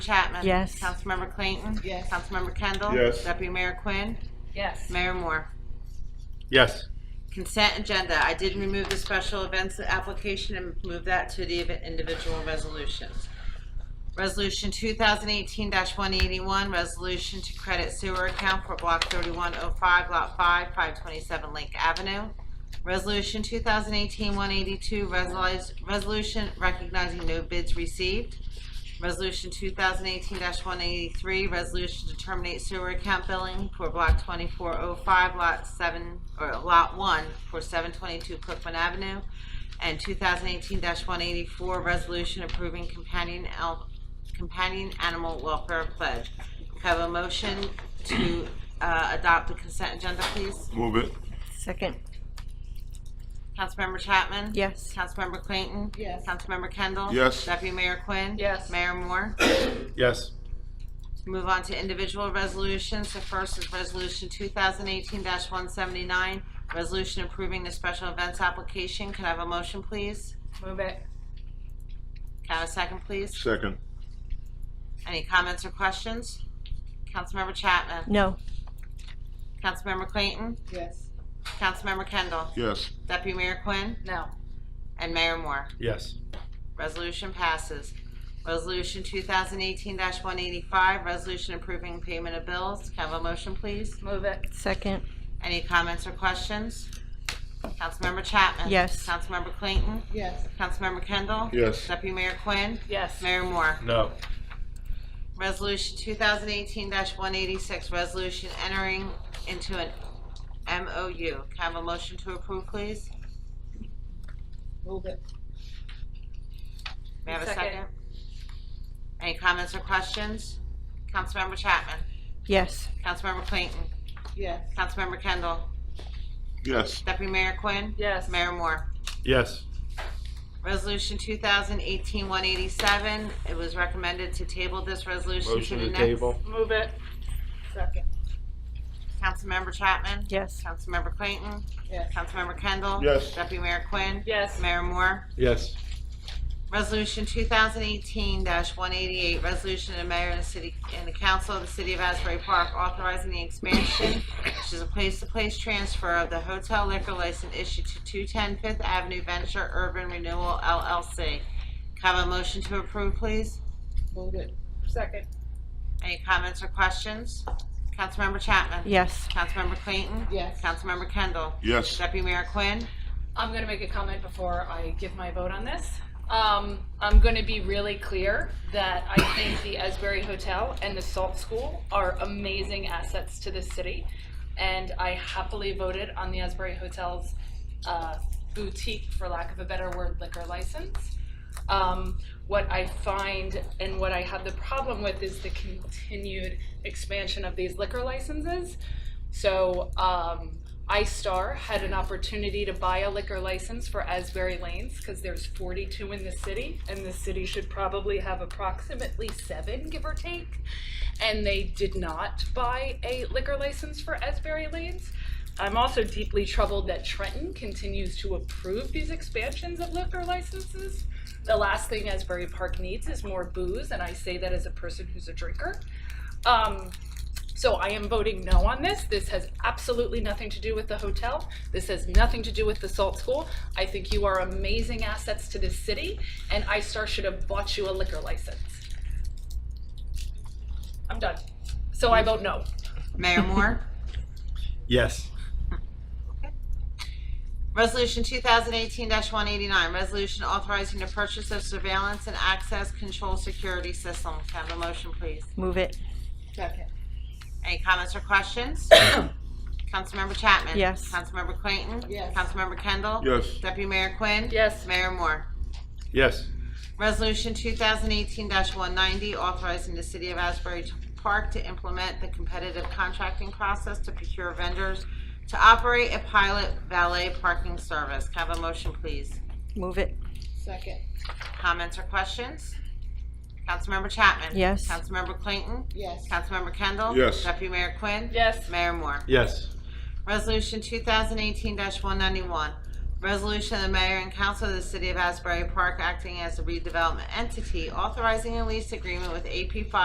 Chapman? Yes. Councilmember Clayton? Yes. Councilmember Kendall? Yes. Deputy Mayor Quinn? Yes. Mayor Moore? Yes. Consent agenda. I did remove the special events application and move that to the individual resolutions. Resolution 2018-181, resolution to credit sewer account for Block 3105, Lot 5, 527 Lake Avenue. Resolution 2018-182, resolution- resolution recognizing no bids received. Resolution 2018-183, resolution to terminate sewer account billing for Block 2405, Lot 7, or Lot 1, for 722 Cookman Avenue. And 2018-184, resolution approving companion al, companion animal welfare pledge. Can I Have a motion to uh, adopt the consent agenda, please. Move it. Second, Councilmember Chapman? yes. Councilmember Clayton? Yes. Councilmember Kendall? Yes. Deputy Mayor Quinn? Yes. Mayor Moore? Yes. Move on to individual resolutions. The first is Resolution 2018-179, resolution approving the special events application. Can I have a motion, please? Move it. Can I have a second, please? Second. Any comments or questions? Councilmember Chapman? No, Councilmember Clayton? Yes. Councilmember Kendall? Yes. Deputy Mayor Quinn? No. And Mayor Moore? Yes. Resolution passes. Resolution 2018-185, resolution approving payment of bills. Can I have a motion, please? Move it. second, Any comments or questions? Councilmember Chapman? Yes. Councilmember Clayton? Yes. Councilmember Kendall? Yes. Deputy Mayor Quinn? Yes. Mayor Moore? No. Resolution 2018-186, resolution entering into an MOU. Can I have a motion to approve, please? Move it. May I have a Second. second? Any comments or questions? Councilmember Chapman? yes. Councilmember Clayton? Yes. Councilmember Kendall? Yes. Deputy Mayor Quinn? Yes. Mayor Moore? Yes. Resolution 2018-187, it was recommended to table this resolution to Motion the to next. table. Move it. Second. Councilmember Chapman? Yes. Councilmember Clayton? Yes. Councilmember Kendall? Yes. Deputy Mayor Quinn? Yes. Mayor Moore? Yes. Resolution 2018-188, resolution of the mayor and the city, and the council of the city of Asbury Park authorizing the expansion, which is a place-to-place transfer of the hotel liquor license issued to 210 Fifth Avenue Venture Urban Renewal LLC. Can I Have a motion to approve, please? Move it. Second. Any comments or questions? Councilmember Chapman? Yes. Councilmember Clayton? Yes. Councilmember Kendall? Yes. Deputy Mayor Quinn? I'm going to make a comment before I give my vote on this. Um, I'm going to be really clear that I think the Esbury Hotel and the Salt School are amazing assets to this city. And I happily voted on the Esbury Hotel's uh, boutique, for lack of a better word, liquor license. Um, what I find and what I have the problem with is the continued expansion of these liquor licenses. So, um, iStar had an opportunity to buy a liquor license for Asbury Lanes, because there's forty-two in the city, and the city should probably have approximately seven, give or take. And they did not buy a liquor license for Asbury Lanes. I'm also deeply troubled that Trenton continues to approve these expansions of liquor licenses. The last thing Asbury Park needs is more booze, and I say that as a person who's a drinker. Um, so I am voting no on this. This has absolutely nothing to do with the hotel. This has nothing to do with the Salt School. I think you are amazing assets to this city, and iStar should have bought you a liquor license. I'm done. So I vote no. Mayor Moore? Yes. Resolution 2018-189, resolution authorizing the purchase of surveillance and access control security system. Can I have a motion, please? Move it, Second. Any comments or questions? Councilmember Chapman? Yes. Councilmember Clayton? Yes. Councilmember Kendall? Yes. Deputy Mayor Quinn? Yes. Mayor Moore? Yes. Resolution 2018-190, authorizing the City of Asbury Park to implement the competitive contracting process to procure vendors to operate a pilot valet parking service. Can I have a motion, please? move it, Second. Comments or questions? Councilmember Chapman? Yes. Councilmember Clayton? Yes. Councilmember Kendall? Yes. Deputy Mayor Quinn? Yes. Mayor Moore? Yes. Resolution 2018-191, Resolution of the mayor and council of the city of Asbury Park acting as a redevelopment entity authorizing a lease agreement with AP Five